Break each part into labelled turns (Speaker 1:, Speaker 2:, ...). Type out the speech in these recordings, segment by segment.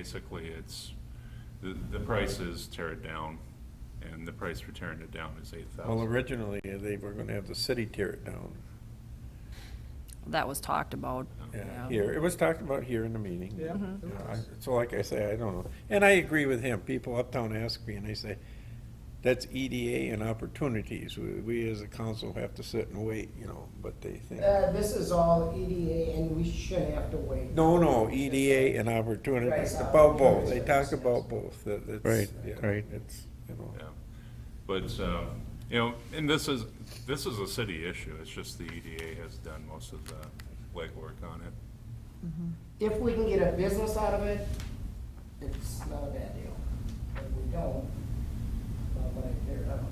Speaker 1: basically it's, the, the price is tear it down, and the price for tearing it down is eight
Speaker 2: Well,
Speaker 1: thousand.
Speaker 2: originally, uh, they were gonna have the city tear it down,
Speaker 3: That was talked about.
Speaker 2: yeah, uh, here, it was talked about here in the meeting.
Speaker 4: Yeah,
Speaker 3: Mhm.
Speaker 2: You
Speaker 4: it
Speaker 2: know, I-
Speaker 4: was.
Speaker 2: So like I say, I don't know, and I agree with him, people uptown ask me, and they say, that's EDA and opportunities, we, we as a council have to sit and wait, you know, but they think.
Speaker 4: Uh, this is all EDA and we shouldn't have to wait.
Speaker 2: No, no, EDA and opportunities,
Speaker 4: Right.
Speaker 2: about both, they talk about both, that it's.
Speaker 5: Right,
Speaker 2: yeah,
Speaker 5: right.
Speaker 2: It's, you know.
Speaker 1: Yeah. But, um, you know, and this is, this is a city issue, it's just the EDA has done most of the legwork on it.
Speaker 4: If we can get a business out of it, it's not a bad deal. If we don't, not what I care about.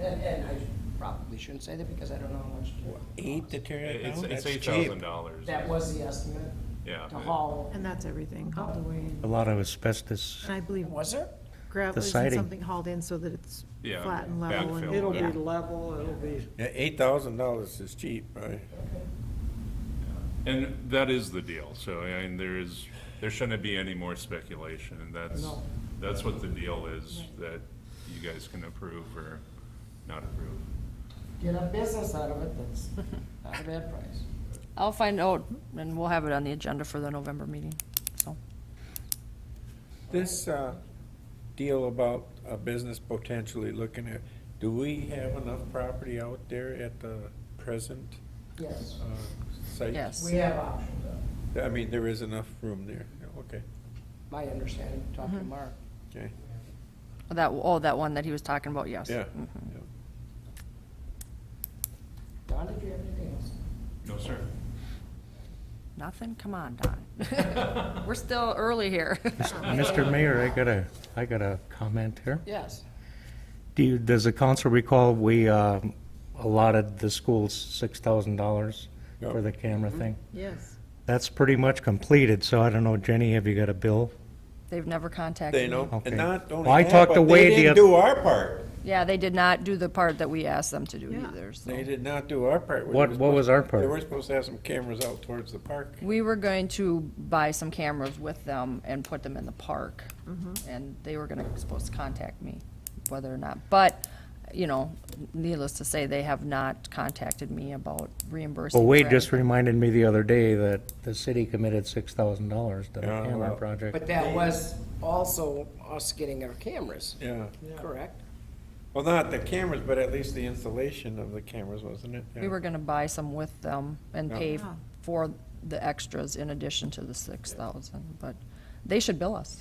Speaker 4: And, and I probably shouldn't say that because I don't know how much. it
Speaker 2: Eight to
Speaker 4: costs.
Speaker 2: tear it
Speaker 1: It's,
Speaker 2: down,
Speaker 1: it's
Speaker 2: that's
Speaker 1: eight
Speaker 2: cheap.
Speaker 1: thousand dollars.
Speaker 4: That was the estimate
Speaker 1: Yeah.
Speaker 4: to haul.
Speaker 6: And that's everything hauled away.
Speaker 5: A
Speaker 6: and-
Speaker 5: lot of asbestos.
Speaker 6: And I believe
Speaker 4: Was there?
Speaker 6: gravel is
Speaker 5: siding.
Speaker 6: something hauled in so that it's
Speaker 1: Yeah,
Speaker 6: flat and level.
Speaker 1: backfill.
Speaker 6: and-
Speaker 7: It'll be
Speaker 6: Yeah.
Speaker 7: level, it'll be,
Speaker 2: Yeah, eight thousand dollars is cheap, right?
Speaker 1: And that is the deal, so, I mean, there is, there shouldn't be any more speculation, and that's,
Speaker 4: No.
Speaker 1: that's what the deal is, that you guys can approve or not approve.
Speaker 4: Get a business out of it, that's not a bad price.
Speaker 3: I'll find out, and we'll have it on the agenda for the November meeting, so.
Speaker 2: This uh, deal about a business potentially looking at, do we have enough property out there at the present
Speaker 4: Yes,
Speaker 2: uh, site?
Speaker 3: Yes.
Speaker 4: we have options, uh,
Speaker 2: I mean, there is enough room there, Yeah, okay,
Speaker 4: my understanding, talking to Mark.
Speaker 2: okay,
Speaker 3: That, oh, that one that he was talking about, yes.
Speaker 2: yeah.
Speaker 3: Mhm.
Speaker 2: yeah.
Speaker 4: Don, did you have anything else?
Speaker 1: No, sir.
Speaker 3: Nothing? Come on, Don. We're still early here.
Speaker 5: Mr. Mayor, I got a, I got a comment here.
Speaker 4: Yes.
Speaker 5: Do you, does the council recall we um, allotted the schools six thousand dollars for
Speaker 2: Yep.
Speaker 5: the camera
Speaker 3: Mm-hmm.
Speaker 5: thing?
Speaker 6: Yes.
Speaker 5: That's pretty much completed, so I don't know, Jenny, have you got a bill?
Speaker 3: They've never contacted me.
Speaker 2: They know,
Speaker 5: Okay.
Speaker 2: and not only
Speaker 5: Well, I
Speaker 2: that,
Speaker 5: talked to
Speaker 2: but
Speaker 5: Wade
Speaker 2: they
Speaker 5: the
Speaker 2: didn't
Speaker 5: oth-
Speaker 2: do our part.
Speaker 3: Yeah, they did not do the part that we asked them to do
Speaker 6: Yeah.
Speaker 3: either, so.
Speaker 2: They did not do our part. We
Speaker 5: What-
Speaker 2: were
Speaker 5: what was
Speaker 2: supposed-
Speaker 5: our part?
Speaker 2: They were supposed to have some cameras out towards the park.
Speaker 3: We were going to buy some cameras with them and put them in the park.
Speaker 4: Mm-hmm.
Speaker 3: And they were gonna, supposed to contact me, whether or not, but, you know, needless to say, they have not contacted me about reimbursing.
Speaker 5: Well, Wade
Speaker 3: for
Speaker 5: just
Speaker 3: anything.
Speaker 5: reminded me the other day that the city committed six thousand dollars to the
Speaker 2: Yeah,
Speaker 5: camera
Speaker 2: well,
Speaker 5: project.
Speaker 4: But that was also us getting our cameras,
Speaker 2: Yeah,
Speaker 4: correct?
Speaker 2: well, not the cameras, but at least the installation of the cameras, wasn't it?
Speaker 3: We were gonna buy some with them and
Speaker 2: Yeah.
Speaker 3: pay
Speaker 6: Ah.
Speaker 3: for the extras in addition to the six thousand, but they should bill us.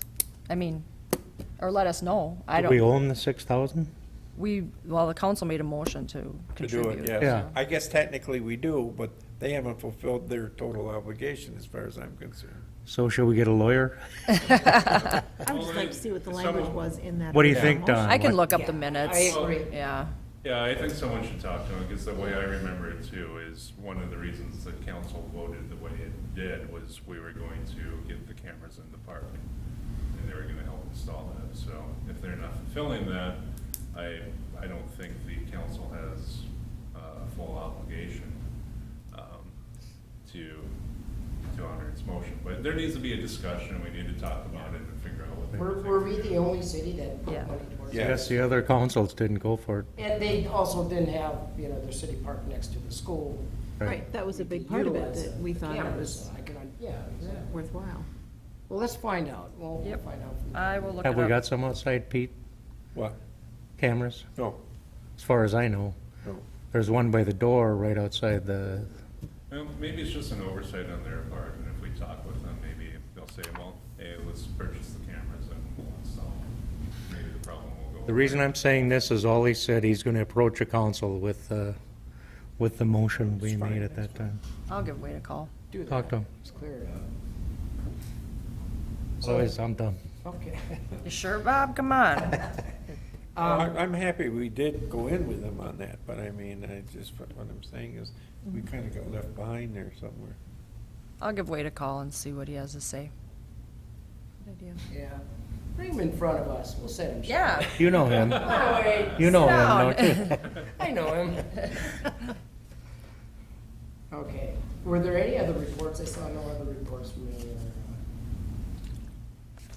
Speaker 3: I mean, or let us know. I
Speaker 5: Do we
Speaker 3: don't,
Speaker 5: own the six thousand?
Speaker 3: we, well, the council made a motion to
Speaker 2: To do it,
Speaker 3: contribute.
Speaker 2: yes.
Speaker 5: Yeah.
Speaker 2: I guess technically we do, but they haven't fulfilled their total obligation as far as I'm concerned.
Speaker 5: So shall we get a lawyer?
Speaker 6: I would just like to see what the
Speaker 1: Well,
Speaker 6: language
Speaker 1: someone-
Speaker 6: was in that.
Speaker 5: What do you
Speaker 6: original
Speaker 5: think, Don?
Speaker 3: I can look up the
Speaker 4: Yeah, I
Speaker 3: minutes.
Speaker 4: agree.
Speaker 3: Yeah.
Speaker 1: Yeah, I think someone should talk to him, because the way I remember it too, is one of the reasons that council voted the way it did was we were going to get the cameras in the park, and they were gonna help install that, so if they're not fulfilling that, I, I don't think the council has uh, a full obligation um, to, to honor its motion, but there needs to be a discussion, we need to talk about it and figure out what. they
Speaker 4: Were,
Speaker 1: think.
Speaker 4: were we the only city that
Speaker 3: Yeah.
Speaker 4: put money towards
Speaker 2: Yeah.
Speaker 4: it?
Speaker 5: Yes, the other councils didn't go for it.
Speaker 4: And they also didn't have, you know, their city park next to the school.
Speaker 6: Right, that was a big part of it,
Speaker 4: Utilize
Speaker 6: that we
Speaker 4: the
Speaker 6: thought it
Speaker 4: cameras,
Speaker 6: was
Speaker 4: I can, yeah, exactly.
Speaker 6: worthwhile.
Speaker 4: Well, let's find out. We'll we'll
Speaker 3: Yep.
Speaker 4: find out. from
Speaker 3: I will look it up.
Speaker 5: Have we got some outside, Pete?
Speaker 2: What?
Speaker 5: Cameras,
Speaker 2: No,
Speaker 5: as far as I know.
Speaker 2: no.
Speaker 5: There's one by the door right outside the,
Speaker 1: Well, maybe it's just an oversight on their part, and if we talk with them, maybe they'll say, well, hey, let's purchase the cameras and we'll install them. Maybe the problem will go.
Speaker 5: the reason I'm saying this is all he said, he's gonna approach a council with, uh, with the motion we made at that time.
Speaker 3: I'll give Wade a call.
Speaker 4: Do that.
Speaker 5: Talk to him.
Speaker 4: It's clear.
Speaker 5: Otherwise, I'm done.
Speaker 4: Okay.
Speaker 3: You sure, Bob? Come on.
Speaker 4: Um,
Speaker 2: I- I'm happy we did go in with them on that, but I mean, I just, what I'm saying is, we kind of got left behind there somewhere.
Speaker 3: I'll give Wade a call and see what he has to say.
Speaker 6: Good idea.
Speaker 4: Yeah. Bring him in front of us. We'll set him. straight.
Speaker 3: Yeah.
Speaker 5: You know him.
Speaker 4: Hi, Wade.
Speaker 5: You know him,
Speaker 3: Sit
Speaker 5: don't you?
Speaker 4: I know him. Okay. Were there any other reports? I saw no other reports from any other